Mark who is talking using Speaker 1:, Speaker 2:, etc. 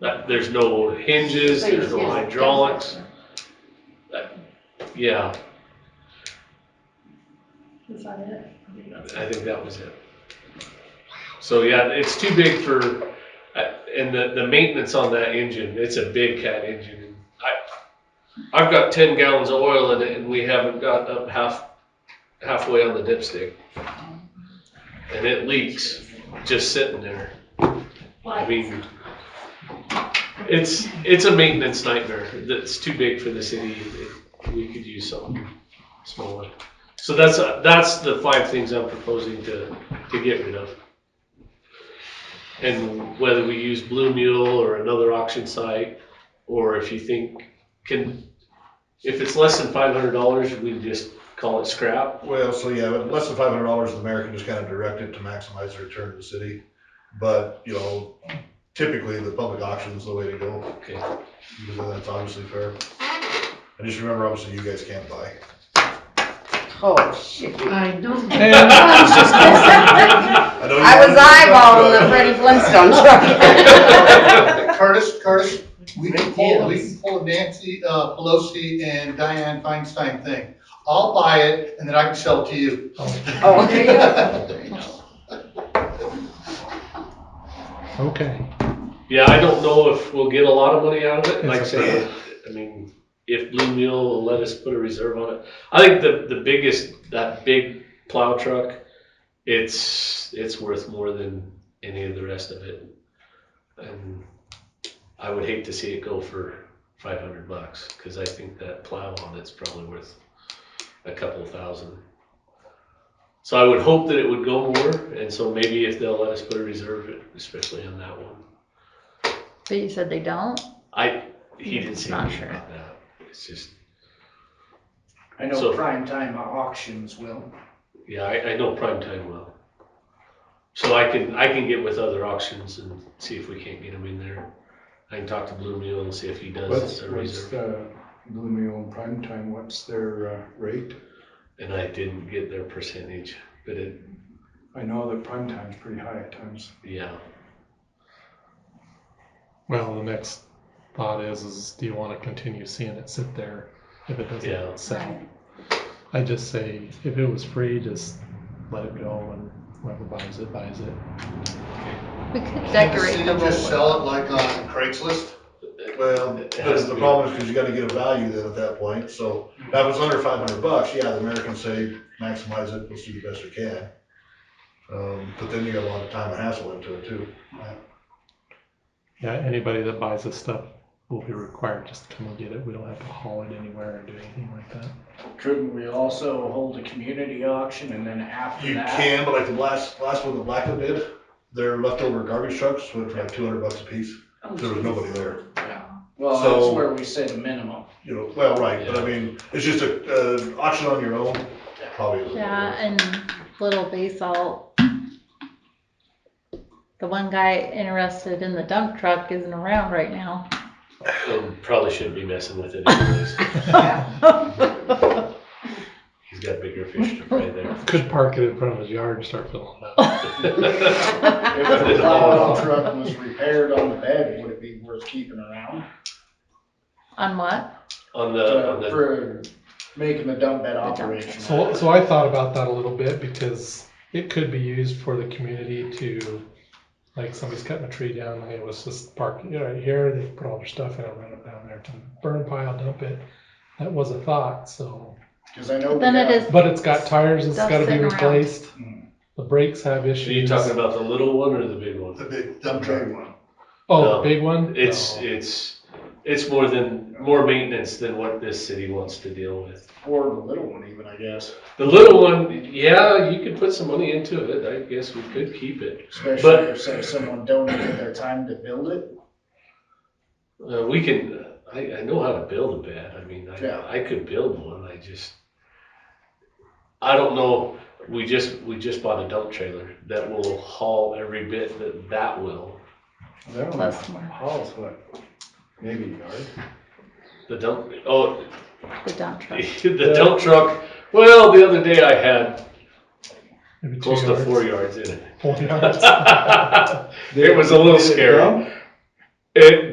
Speaker 1: That, there's no hinges, there's no
Speaker 2: Yes.
Speaker 1: hydraulics, yeah,
Speaker 2: That's not it.
Speaker 1: I think that was it. So, yeah, it's too big for, I- and the, the maintenance on that engine, it's a big cat engine. I, I've got ten gallons of oil in it and we haven't got up half, halfway on the dipstick. And it leaks, just sitting there. I mean, it's, it's a maintenance nightmare that's too big for the city. We could use something smaller. So that's, that's the five things I'm proposing to, to get rid of. And whether we use Blue Mule or another auction site, or if you think can, if it's less than five hundred dollars, we just call it scrap.
Speaker 3: Well, so yeah, but less than five hundred dollars, the mayor can just kind of direct it to maximize the return to the city. But, you know, typically the public auction is the way to go,
Speaker 1: Okay,
Speaker 3: because then that's obviously fair. And just remember, obviously, you guys can't buy.
Speaker 4: Oh, shit.
Speaker 2: I know.
Speaker 3: I know you-
Speaker 4: I was eyeballing the Freddie Flintstone truck.
Speaker 5: Curtis, Curtis, we can pull, we can pull a Nancy uh, Pelosi and Diane Feinstein thing. I'll buy it and then I can sell it to you.
Speaker 4: Oh, there you
Speaker 6: Okay.
Speaker 1: yeah, I don't know if we'll get a lot of money out of it, like I
Speaker 6: It's
Speaker 1: said, I mean, if Blue Mule will let us put a reserve on it. I think the, the biggest, that big plow truck, it's, it's worth more than any of the rest of it. And I would hate to see it go for five hundred bucks, cause I think that plow on it's probably worth a couple thousand. So I would hope that it would go more, and so maybe if they'll let us put a reserve, especially on that one.
Speaker 2: But you said they don't?
Speaker 1: I, he didn't say
Speaker 2: Not
Speaker 1: anything
Speaker 2: sure.
Speaker 1: about that. It's just,
Speaker 7: I
Speaker 1: So-
Speaker 7: know prime time auctions will.
Speaker 1: yeah, I, I know prime time well. So I can, I can get with other auctions and see if we can't get him in there. I can talk to Blue Mule and see if he
Speaker 6: What's,
Speaker 1: does a
Speaker 6: what's
Speaker 1: reserve.
Speaker 6: the Blue Mule prime time, what's their uh, rate?
Speaker 1: And I didn't get their percentage, but it,
Speaker 6: I know that prime time's pretty high at times.
Speaker 1: yeah,
Speaker 8: Well, the next thought is, is do you want to continue seeing it sit there if it doesn't
Speaker 1: Yeah.
Speaker 8: sell? I just say if it was free, just let it go and whoever buys it buys it.
Speaker 2: We could
Speaker 5: Can the
Speaker 2: decorate
Speaker 5: city
Speaker 2: the
Speaker 5: just
Speaker 2: whole.
Speaker 5: sell it like on Craigslist?
Speaker 3: Well, that's the problem, is because you gotta get a value then at that point, so if it was under five hundred bucks, yeah, the mayor can say maximize it, let's do the best we can. Um, but then you got a lot of time and hassle into it too.
Speaker 8: Yeah, anybody that buys this stuff will be required just to come and get it. We don't have to haul it anywhere or do anything like that.
Speaker 7: Couldn't we also hold a community auction and then after
Speaker 3: You
Speaker 7: that?
Speaker 3: can, but like the last, last one that Blackwood did, their leftover garbage trucks went for like two hundred bucks a piece.
Speaker 2: Oh,
Speaker 3: There was nobody there,
Speaker 7: Well,
Speaker 3: So-
Speaker 7: that's where we said a minimum.
Speaker 3: you know, well, right, but I mean, it's just a, uh, auction on your own, probably. isn't
Speaker 2: Yeah, and Little Basalt. The one guy interested in the dump truck isn't around right now.
Speaker 1: and probably shouldn't be messing with it anyways. He's got bigger fish to fry there.
Speaker 8: Could park it in front of his yard and start filling it up.
Speaker 7: If the plow truck was repaired on the bed, would it be worth keeping around?
Speaker 2: On what?
Speaker 1: On Uh, the, on
Speaker 7: To-
Speaker 1: the,
Speaker 7: For making the dump bed
Speaker 2: dump truck.
Speaker 8: So,
Speaker 7: operational?
Speaker 8: so I thought about that a little bit because it could be used for the community to, like, somebody's cutting a tree down, and it was just parked, you know, right here, they put all their stuff in, and run it down there to burn pile, dump it. That was a thought, so,
Speaker 7: Cause I know. we
Speaker 2: Then it
Speaker 7: got-
Speaker 2: is-
Speaker 8: but it's got tires, it's
Speaker 2: Stuff
Speaker 8: gotta be
Speaker 2: sitting around.
Speaker 8: replaced.
Speaker 7: Hmm.
Speaker 8: The brakes have
Speaker 1: are you
Speaker 8: issues.
Speaker 1: talking about the little one or the big one?
Speaker 5: The big dump truck one.
Speaker 8: Oh,
Speaker 1: No.
Speaker 8: the big one? Oh,
Speaker 1: It's,
Speaker 8: No.
Speaker 1: it's, it's more than, more maintenance than what this city wants to deal with.
Speaker 7: Or the little one even, I guess,
Speaker 1: The little one, yeah, you could put some money into it, I guess we could keep it.
Speaker 7: especially
Speaker 1: But-
Speaker 7: if say someone donated their time to build it.
Speaker 1: Uh, we can, I, I know how to build a bed, I mean,
Speaker 7: Yeah.
Speaker 1: I, I could build one, I just, I don't know, we just, we just bought a dump trailer that will haul every bit that that will.
Speaker 6: That one
Speaker 2: Plus more,
Speaker 3: Oh,
Speaker 6: hauls what, maybe a yard?
Speaker 1: The dump, oh,
Speaker 2: the dump truck.
Speaker 1: the dump truck, well, the other day I had
Speaker 8: Maybe two
Speaker 1: close to
Speaker 8: yards.
Speaker 1: four yards in it.
Speaker 8: Four yards.
Speaker 1: It was a little
Speaker 6: Did it
Speaker 1: scary.
Speaker 6: dump?
Speaker 1: It,